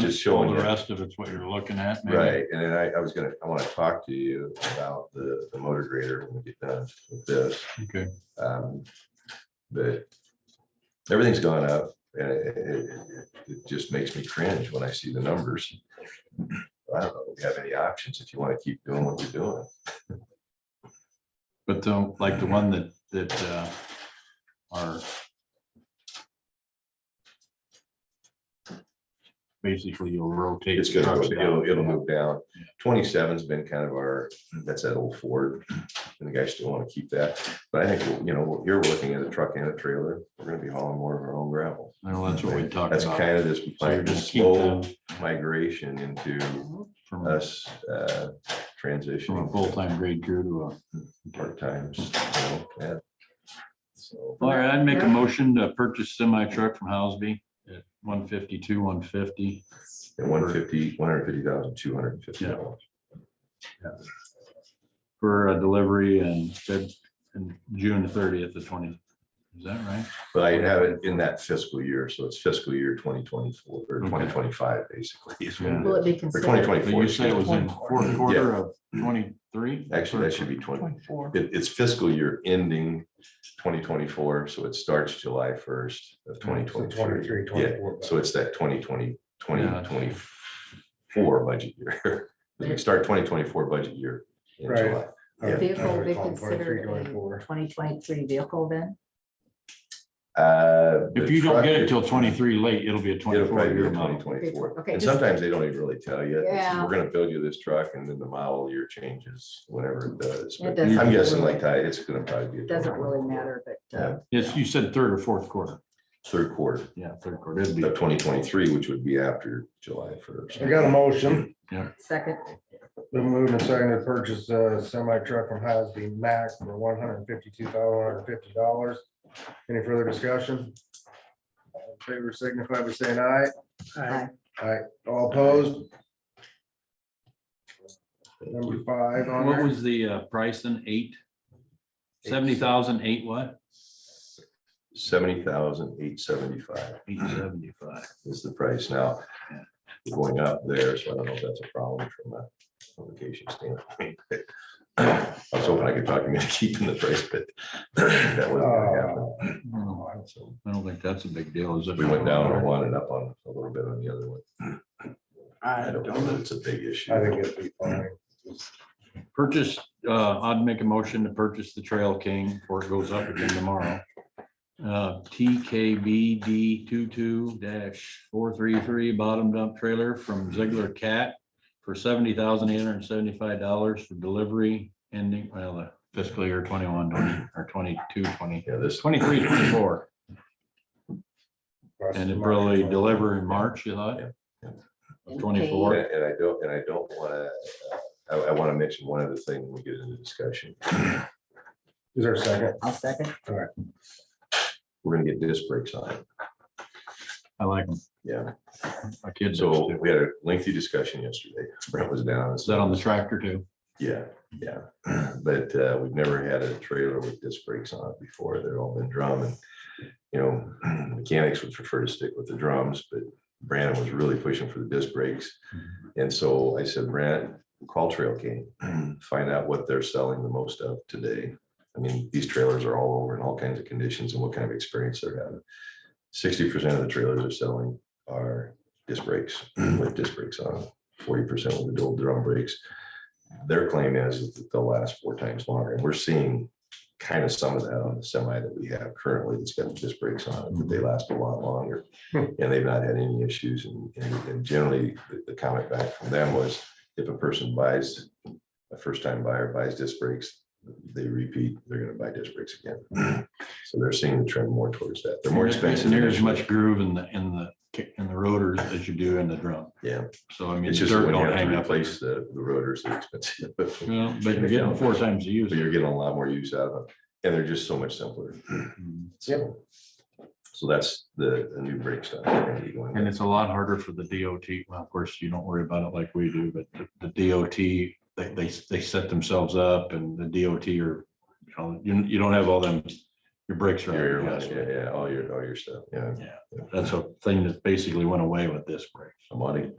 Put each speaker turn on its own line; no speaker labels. Just
All
showing
the
you.
rest of it's what you're looking at. maybe?
Right, and then I, I was gonna, I wanna talk to you about the, the motor grader when we get done with this.
Okay,
Um, But everything's gone up and it, it- it- it just makes me cringe when I see the numbers. I don't know if we have any options if you wanna keep doing what you're doing.
but the- like the one that, that uh, are basically you'll rotate.
It's gonna,
trucks
go- it'll,
down.
it'll move down. Twenty-seven's been kind of our, that's that old Ford, and the guys still wanna keep that. But I think, you know, you're looking at a truck and a trailer, we're gonna be hauling more of our own gravel.
Well, that's what we talked
That's
about.
kind of this
So you're
like,
just keep
slow
them
migration into
from a-
us uh,
from a
transitioning
full-time grade crew to a.
part times. you know, yeah. So,
All right, I'd make a motion to purchase semi truck from Housby at one fifty-two, one fifty.
And one fifty, one hundred fifty thousand, two hundred and fifty dollars.
for a delivery and Feb, and June thirtieth to twenty, is that right?
But I have it in that fiscal year, so it's fiscal year twenty twenty-four or
Okay.
twenty twenty-five, basically. is when
Will
it
it be
is. Or
considered?
twenty
But you
twenty-four.
said it was in fourth quarter of twenty-three?
Actually, that should be twenty,
Twenty-four.
it- it's fiscal year ending twenty twenty-four, so it starts July first of twenty twenty-three. Yeah, so it's that 2020 2024
Yeah.
budget year. We start twenty twenty-four budget year in
Right.
July. Yeah.
Vehicle will be
Twenty-three,
considered a
twenty-four.
twenty twenty-three vehicle then?
Uh,
If
the
you don't
truck
get it
is-
till twenty-three late, it'll be a
It'll
twenty-four
probably be
year
twenty
model.
twenty-four.
Okay,
And
just-
sometimes they don't even really tell you. It's,
Yeah.
We're gonna build you this truck and then the model year changes, whatever it does.
It
But
doesn't
I'm guessing
really-
like that, it's gonna probably be. a
Doesn't
2024,
really matter, but
Yeah.
uh,
Yes, you said third or fourth quarter.
Third quarter
Yeah, third quarter. It'd be,
of twenty twenty-three, which would be after July first.
I got a motion,
second,
been moved and seconded to purchase a semi truck from Hasby Mack for one hundred and fifty-two thousand, one hundred and fifty dollars. Any further discussion? All in Favor signify by saying aye.
Aye.
Aye, all opposed? Number five on
what
there,
was the uh, price in eight? Seventy thousand, eight what?
Seventy thousand, eight seventy-five.
Eight seventy-five.
is the price now. We're Going up there, so I don't know if that's a problem from a publication standpoint. I was hoping I could talk him into keeping the price, but that wasn't gonna happen.
I don't know.
So
I don't think that's a big deal, is it?
We went down and wanted up on a little bit on the other one. I don't know that it's a big issue.
I think it'd be fine.
Purchase, uh, I'd make a motion to purchase the Trail King before it goes up again tomorrow. Uh, TKBD two-two four-three-three bottom dump trailer from Ziegler Cat for seventy thousand eight hundred and seventy-five dollars for delivery ending, well, the fiscal year twenty-one, twenty, or twenty-two, twenty,
Yeah, this,
twenty-three, twenty-four. And it probably deliver in March, you thought?
And
Twenty-four.
and and I don't, and I don't wanna, uh, I, I wanna mention one other thing when we get into discussion.
Is there a second?
I'll second.
We're gonna get disc brakes on it.
I like them.
Yeah.
My kids, do
So
too.
we had a lengthy discussion yesterday. Brent was down.
is that on the tractor too?
Yeah, yeah, but uh, we've never had a trailer with disc brakes on it before. They've all been drum and, you know, mechanics would prefer to stick with the drums, but Brandon was really pushing for the disc brakes. And so I said, Brent, call Trail King, find out what they're selling the most of today. I mean, these trailers are all over in all kinds of conditions and what kind of experience they're having. Sixty percent of the trailers are selling are disc brakes with disc brakes on, forty percent with the dual drum brakes their claim is is that they'll last four times longer. And we're seeing kind of some of that on the semi that we have currently that's got the disc brakes on it, that they last a lot longer.
Hmm.
And they've not had any issues. And, and and generally, the- the comment back from them was if a person buys, a first time buyer buys disc brakes, they repeat, they're gonna buy disc brakes again. So they're seeing the trend more towards that. They're more
There's- there's
expensive.
Near as
initially.
much groove in the, in the, kick- in the rotors as you do in the drum.
Yeah.
So I mean,
It's
dirt
just when you
don't
have
hang
to
up. Mm.
replace the, the rotors, they're expensive.
Well, But you're getting four times the use.
but you're getting a lot more use out of them. And they're just so much simpler.
And
So, so that's the, the new brake stuff. we're gonna be going with.
it's a lot harder for the DOT. Well, of course, you don't worry about it like we do, but the- the DOT, they, they, they set themselves up and the DOT are, you know, you, you don't have all them Your brakes are. on
Your-
your
your-
gas brake.
Yeah, yeah, all your, all your stuff, yeah.
Yeah, that's a thing that basically went away with this brake.
I'm on it.